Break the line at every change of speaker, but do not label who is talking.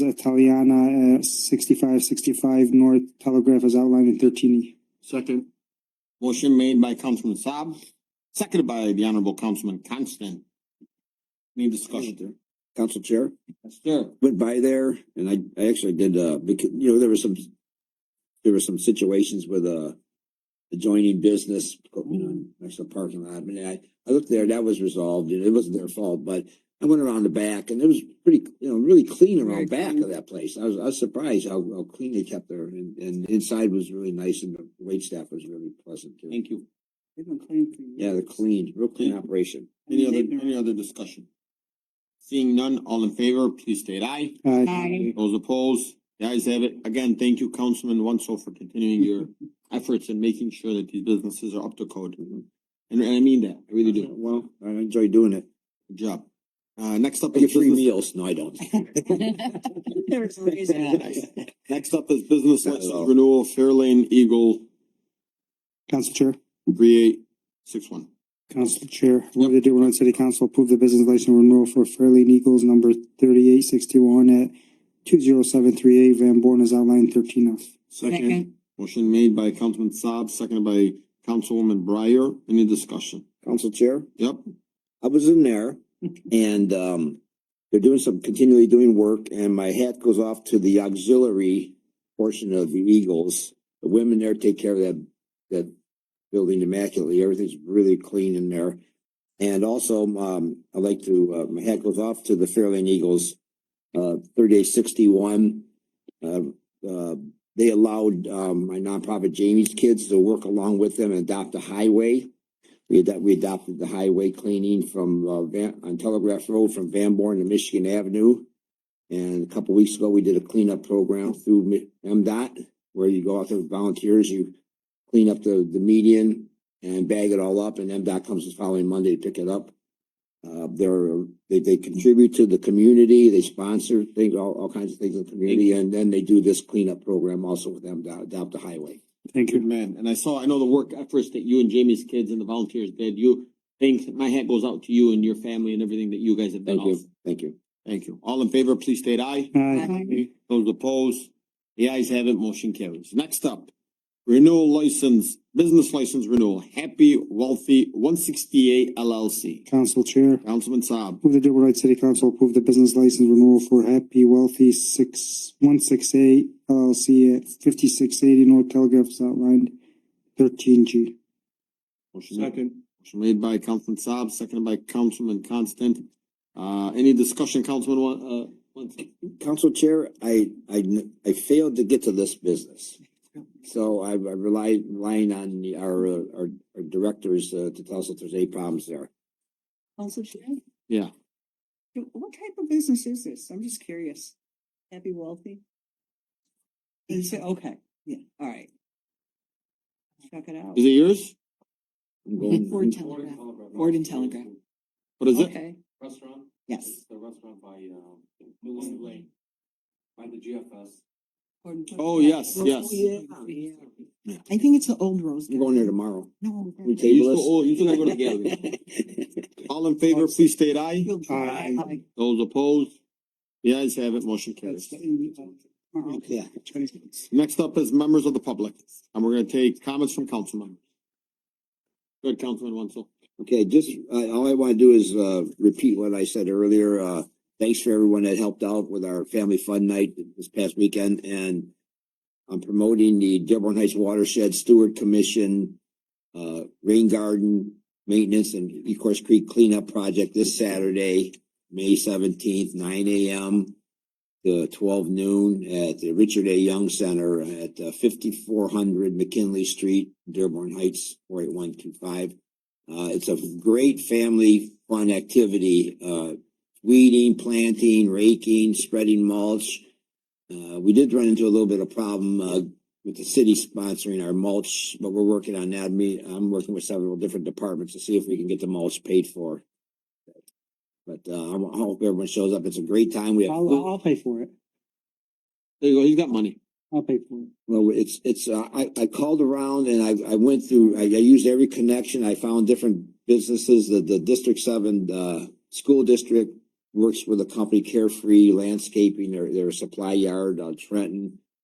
of Taliana at sixty-five sixty-five North Telegraph as outlined in thirteen E.
Second.
Motion made by Councilman Saab, seconded by the Honorable Councilman Constant. Any discussion?
Council Chair,
Sir,
went by there and I, I actually did, uh, because, you know, there were some, there were some situations with, uh, adjoining business, you know, next to the parking lot. I mean, I, I looked there, that was resolved. and It wasn't their fault, but I went around the back and it was pretty, you know, really clean around back of that place. I was, I was surprised how, how clean they kept there and, and inside was really nice and the waitstaff was really pleasant too.
thank you.
Yeah, they're clean, real clean operation.
Any other, any other discussion? Seeing none, all in favor, please state aye.
Uh, Aye.
Those opposed, the ayes have it. Again, thank you, Councilman Wenzel, for continuing your efforts in making sure that these businesses are up to code. And, and I mean that, I really do.
Uh, Well, I enjoy doing it.
Good job. Uh, next up
I
is
get free
business.
meals. No, I don't.
Next up is business
Not at
license
all.
renewal, Fairlane Eagle,
Council Chair,
three eight six one.
Council Chair, move that Dearborn Heights City Council approve the business license renewal for Fairleigh Eagles number thirty-eight sixty-one at two zero seven three eight Van Born as outlined in thirteen F.
Second.
Motion made by Councilman Saab, seconded by Councilwoman Breyer. Any discussion?
Council Chair,
Yep,
I was in there and, um, they're doing some, continually doing work and my hat goes off to the auxiliary portion of the Eagles. The women there take care of that, that building immaculately. Everything's really clean in there. And also, um, I like to, uh, my hat goes off to the Fairlane Eagles, uh, thirty-eight sixty-one. Uh, uh, they allowed, um, my nonprofit Jamie's kids to work along with them and adopt a highway. We adopted, we adopted the highway cleaning from, uh, Van, on Telegraph Road from Van Born to Michigan Avenue. And a couple weeks ago, we did a cleanup program through Mi- MDOT, where you go out there with volunteers, you clean up the, the median and bag it all up, and MDOT comes the following Monday to pick it up. Uh, they're, they, they contribute to the community, they sponsor things, all, all kinds of things in the community, and then they do this cleanup program also with MDOT, adopt the highway.
Thank
good
you.
man. And I saw, I know the work efforts that you and Jamie's kids and the volunteers did. You, thanks, my hat goes out to you and your family and everything that you guys have done.
Thank you,
also.
thank you.
Thank you. All in favor, please state aye.
Aye.
Those opposed, the ayes have it, motion carries. Next up, renewal license, business license renewal, Happy Wealthy one sixty-eight LLC.
Council Chair,
Councilman Saab,
Move the Dearborn Heights City Council approve the business license renewal for Happy Wealthy six, one six eight LLC at fifty-six eighty North Telegraph is outlined thirteen G.
motion made, motion made by Councilman Saab, seconded by Councilman Constant. Uh, any discussion, Councilman, Wa- uh, Wentz?
Council Chair, I, I, n- I failed to get to this business. So I I relied, relying on the- our, uh, our, our directors uh, to tell us if there's any problems there.
Council Chair?
Yeah.
Do- What type of business is this? I'm just curious. Happy wealthy? Is it, okay, yeah, all right. Check it out.
is it yours?
I'm going-
Ford Telegraph. Ford and Telegraph.
What is it?
Okay,
Restaurant?
yes.
The restaurant by, um, Lane, by the GFS.
Gordon Ford.
Oh, yes,
Rose-
yes.
yeah. I think it's the old Rose.
I'm going there tomorrow.
No.
You
We
used
table
to-
this?
Oh, you still go to the gallery. All in favor, please state aye.
You'll-
Aye.
Aye.
Those opposed, the ayes have it, motion carries.
uh,
Yeah.
Next up is members of the public, and we're gonna take comments from council members. Good, Councilman Wenzel.
Okay, just, uh, all I wanna do is, uh, repeat what I said earlier, uh, thanks for everyone that helped out with our family fun night this past weekend and I'm promoting the Dearborn Heights Watershed Steward Commission, uh, Rain Garden Maintenance and Ecorse Creek Cleanup Project this Saturday, May seventeenth, nine AM to twelve noon at the Richard A. Young Center at uh, fifty-four hundred McKinley Street, Dearborn Heights, four eight one two five. Uh, it's a great family fun activity, uh, weeding, planting, raking, spreading mulch. Uh, we did run into a little bit of problem, uh, with the city sponsoring our mulch, but we're working on that. Me, I'm working with several different departments to see if we can get the mulch paid for. But, uh, I ho- I hope everyone shows up. It's a great time. We have.
I'll, I'll pay for it.
There you go, he's got money.
I'll pay for it.
Well, it's, it's, uh, I, I called around and I, I went through, I, I used every connection. I found different businesses, the, the District Seven, uh, school district, works with a company Carefree Landscaping, their, their supply yard on Trenton.